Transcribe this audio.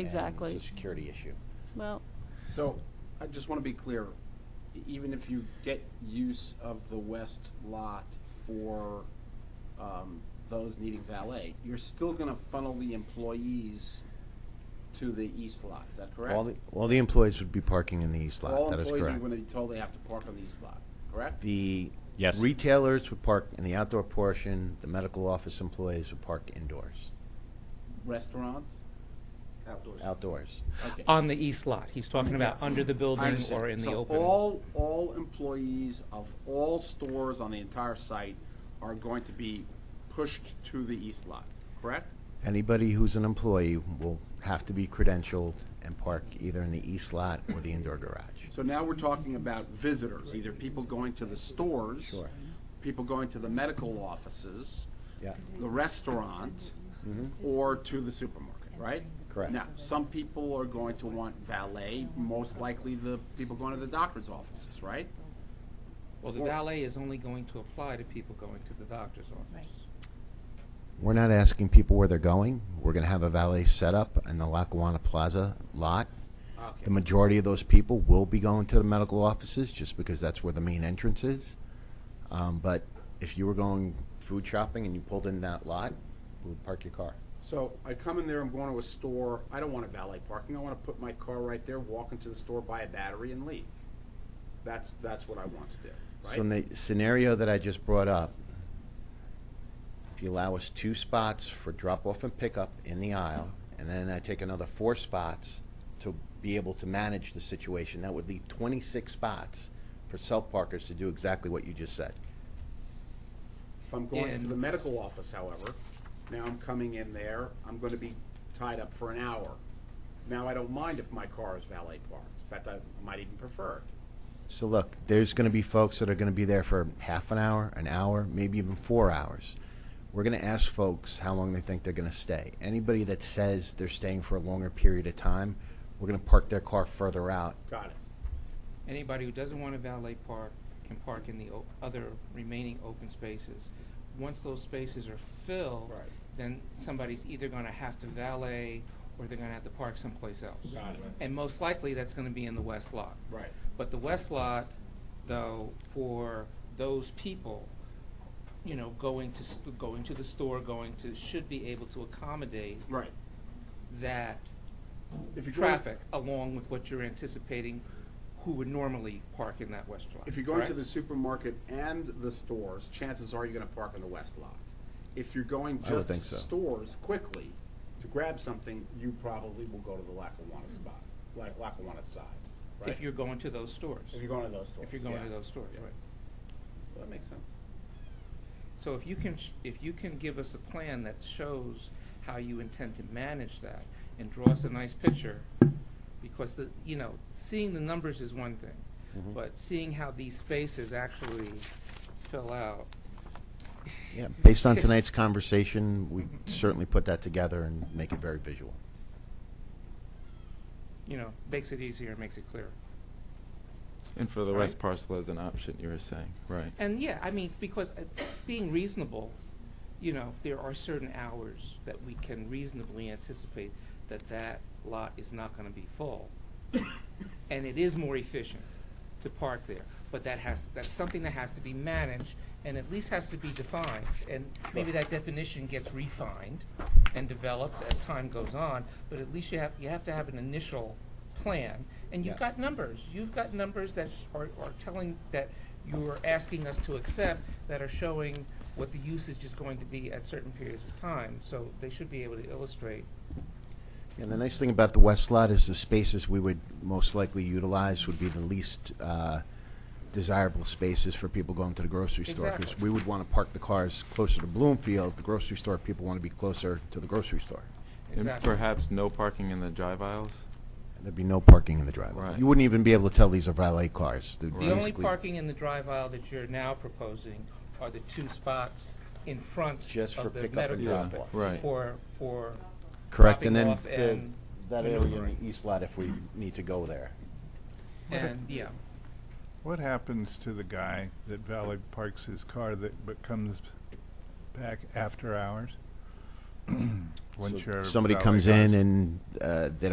and Exactly. It's a security issue. Well, So, I just want to be clear, e- even if you get use of the west lot for um, those needing valet, you're still going to funnel the employees to the east lot, is that correct? All the, all the employees would be parking in the east lot, All that is employees are correct. going to be told they have to park on the east lot, correct? The Yes. retailers would park in the outdoor portion, the medical office employees would park indoors, Restaurant? outdoors. Okay. On the east lot, he's talking about under the I building understand. or in the So open. all, all employees of all stores on the entire site are going to be pushed to the east lot, correct? Anybody who's an employee will have to be credentialed and park either in the east lot or the indoor garage. So now we're talking about visitors, either people going to the stores. Sure. People going to the medical offices. Yeah. The restaurant, or to the supermarket, right? Correct. Now, some people are going to want valet, most likely the people going to the doctor's offices, right? Well, the valet is only going to apply to people going to the doctor's office. We're not asking people where they're going. We're going to have a valet set up in the Lackawanna Plaza lot. The Okay. majority of those people will be going to the medical offices just because that's where the main entrance is. Um, but if you were going food shopping and you pulled in that lot, we would park your car. So I come in there, I'm going to a store, I don't want a valet parking, I wanna put my car right there, walk into the store, buy a battery and leave. That's, that's what I want to do, right? So in the scenario that I just brought up, if you allow us two spots for drop off and pickup in the aisle, and then I take another four spots to be able to manage the situation, that would leave twenty-six spots for self-parkers to do exactly what you just said. If I'm going to And- the medical office, however, now I'm coming in there, I'm gonna be tied up for an hour. Now, I don't mind if my car is valet parked, in fact, I might even prefer it. So look, there's going to be folks that are going to be there for half an hour, an hour, maybe even four hours. We're going to ask folks how long they think they're going to stay. Anybody that says they're staying for a longer period of time, we're going to park their car further out. Got it. Anybody who doesn't want a valet park can park in the o- other remaining open spaces. Once those spaces are filled, Right. then somebody's either gonna have to valet or they're gonna have to park someplace else. Got it. And most likely, that's gonna be in the west lot. Right. But the west lot, though, for those people, you know, going to, st- going to the store, going to, should be able to accommodate Right. that If you're going- traffic along with what you're anticipating who would normally park in that west lot. If you're going to correct? the supermarket and the stores, chances are you're gonna park in the west lot. If you're going I would just to think so. stores quickly to grab something, you probably will go to the Lackawanna spot, like Lackawanna side, right? If you're going to those stores. If you're going to those stores. If you're going yeah. to those stores, right. That makes sense. So if you can, sh- if you can give us a plan that shows how you intend to manage that and draw us a nice picture, because the, you know, seeing the numbers is one Mm-hmm. thing, but seeing how these spaces actually fill out. Yeah, based on is- tonight's conversation, we certainly put that together and make it very visual. You know, makes it easier, makes it clearer. And for the Right. west parcel as an option, you were saying, right? And yeah, I mean, because uh, being reasonable, you know, there are certain hours that we can reasonably anticipate that that lot is not gonna be full. And it is more efficient to park there, but that has, that's something that has to be managed and at least has to be defined. And maybe that definition gets refined and develops as time goes on, but at least you have, you have to have an initial plan. And you've Yeah. got numbers, you've got numbers that s- are, are telling, that you're asking us to accept, that are showing what the usage is going to be at certain periods of time. So they should be able to illustrate And the nice thing about the west lot is the spaces we would most likely utilize would be the least uh, desirable spaces for people going to the grocery store. 'cause Exactly. we would want to park the cars closer to Bloomfield, the grocery store, people want to be closer to the grocery store. And exactly. perhaps no parking in the drive aisles? There'd be no parking in the driveway. Right. You wouldn't even be able to tell these are valet cars. They'd Right. The only basically- parking in the drive aisle that you're now proposing are the two spots in front Just for of the pickup medical. and drop spot off. Yeah, right. For, for. Correct, dropping and then off the- and that area in maneuvering. the east lot if we need to go there. And, yeah, What happens to the guy that valet parks his car that, but comes back after hours? Once So your Somebody valet comes goes? in and uh, they